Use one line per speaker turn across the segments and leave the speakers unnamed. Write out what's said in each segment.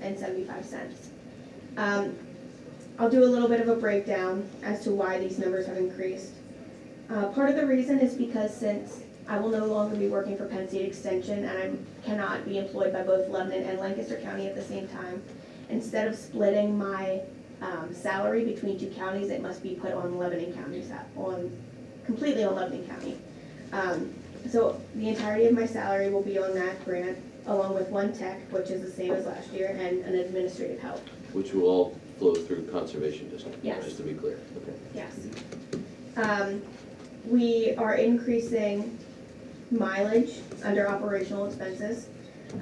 and seventy-five cents. Um, I'll do a little bit of a breakdown as to why these numbers have increased. Uh, part of the reason is because since I will no longer be working for Penn State Extension and I cannot be employed by both Lebanon and Lancaster County at the same time, instead of splitting my, um, salary between two counties, it must be put on Lebanon County, sa- on, completely on Lebanon County. Um, so the entirety of my salary will be on that grant, along with one tech, which is the same as last year, and an administrative help.
Which will all flow through conservation district,
Yes.
just to be clear. Okay.
Yes. Um, we are increasing mileage under operational expenses,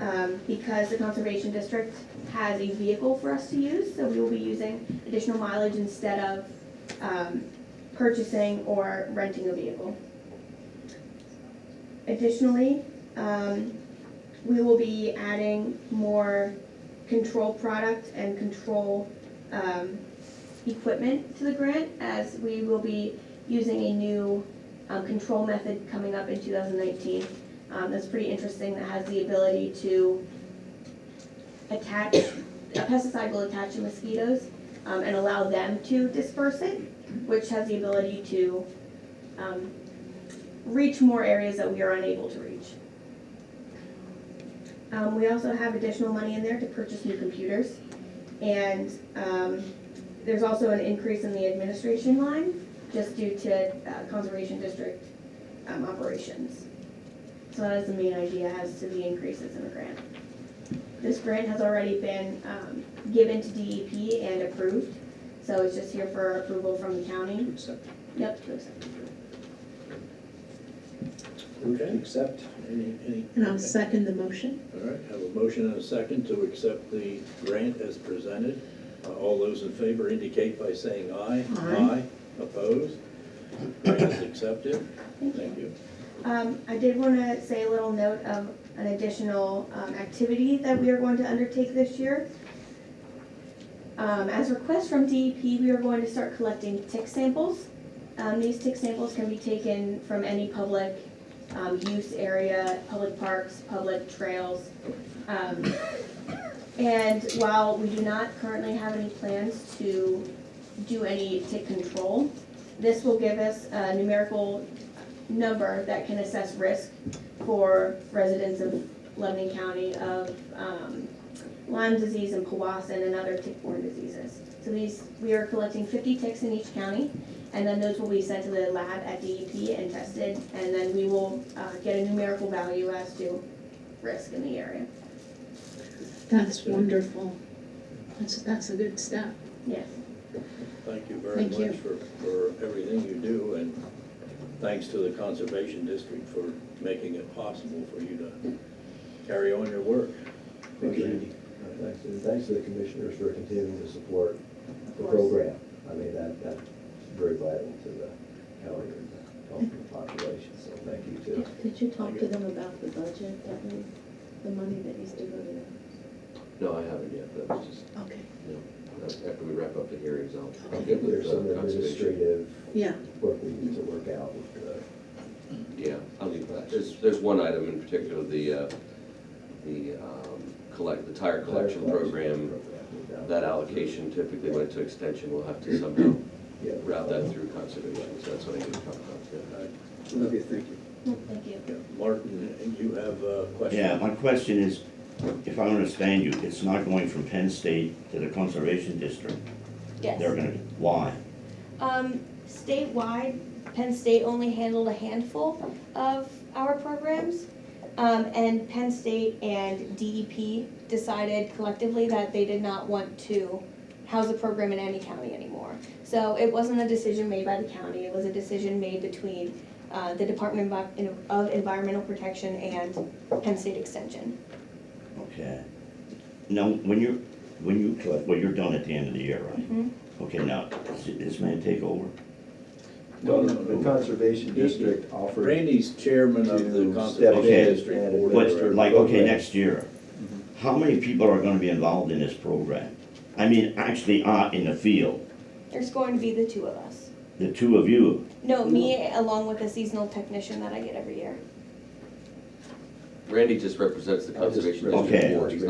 um, because the conservation district has a vehicle for us to use, so we will be using additional mileage instead of, um, purchasing or renting a vehicle. Additionally, um, we will be adding more control product and control, um, equipment to the grant as we will be using a new um, control method coming up in 2019. Um, That's pretty interesting, that has the ability to attach, a pesticide will attach to mosquitoes um, and allow them to disperse it, which has the ability to um, reach more areas that we are unable to reach. Um, We also have additional money in there to purchase new computers. And um, there's also an increase in the administration line, just due to uh, Conservation District um, operations. So that is the main idea as to the increases in the grant. This grant has already been um, given to DEP and approved, so it's just here for approval from the county.
Accept.
Yep, to accept.
Okay, accept. Any, any,
And I'll second the motion.
all right, have a motion and a second to accept the grant as presented. Uh, All those in favor indicate by saying aye.
Aye.
Opposed? Grant is accepted. Thank you.
Um, I did want to say a little note of an additional, um, activity that we are going to undertake this year. Um, as requests from DEP, we are going to start collecting tick samples. Um, these tick samples can be taken from any public, um, use area, public parks, public trails. Um, and while we do not currently have any plans to do any tick control, this will give us a numerical number that can assess risk for residents of Lebanon County of um, Lyme disease and Powassan and other tick-borne diseases. So these, we are collecting 50 ticks in each county, and then those will be sent to the lab at DEP and tested, and then we will uh, get a numerical value as to risk in the area.
That's wonderful. That's, that's a good step.
Yes.
Thank you very
Thank you.
much for, for everything you do, and thanks to the Conservation District for making it possible for you to carry on your work.
Thank you, Andy. Uh, Thanks, and thanks to the commissioners for continuing to support the program. I mean, that, that's very vital to the county and the health of the population, so thank you too.
Did- Did you talk to them about the budget, that we, the money that needs to go to them?
No, I haven't yet, that was just,
Okay.
no, after we wrap up the hearings, I'll, I'll get with
There's
uh,
some
conservation.
administrative
Yeah,
work we need to work out with the
Yeah, I'll leave that, there's, there's one item in particular, the, uh, the, um, collect, the tire collection program,
program.
that allocation typically went to extension, we'll have to somehow
Yeah.
route that through conservation, so that's what I'm gonna talk about, yeah.
Love you, thank
Thank you.
you. Martin, you have a question?
Yeah, my question is, if I understand you, it's not going from Penn State to the Conservation District? They're gonna, why?
Um, statewide, Penn State only handled a handful of our programs. Um, and Penn State and DEP decided collectively that they did not want to house a program in any county anymore. So it wasn't a decision made by the county, it was a decision made between, uh, the Department of Envi- of Environmental Protection and Penn State Extension.
Okay. Now, when you're, when you collect, well, you're done at the end of the year, right?
Mhm.
Okay, now, does this man take over?
No,
Well,
no,
the
no.
Conservation District offered,
Randy's chairman of the
To
Conservation
step
in
District
and
Board. of
But,
administer.
Directors.
like, okay, next year, how many people are gonna be involved in this program? I mean, actually, are in the field,
There's going to be the two of us.
the two of you,
No, me along with a seasonal technician that I get every year.
Randy just represents the
I just-
conservation district
Okay.
board, he's not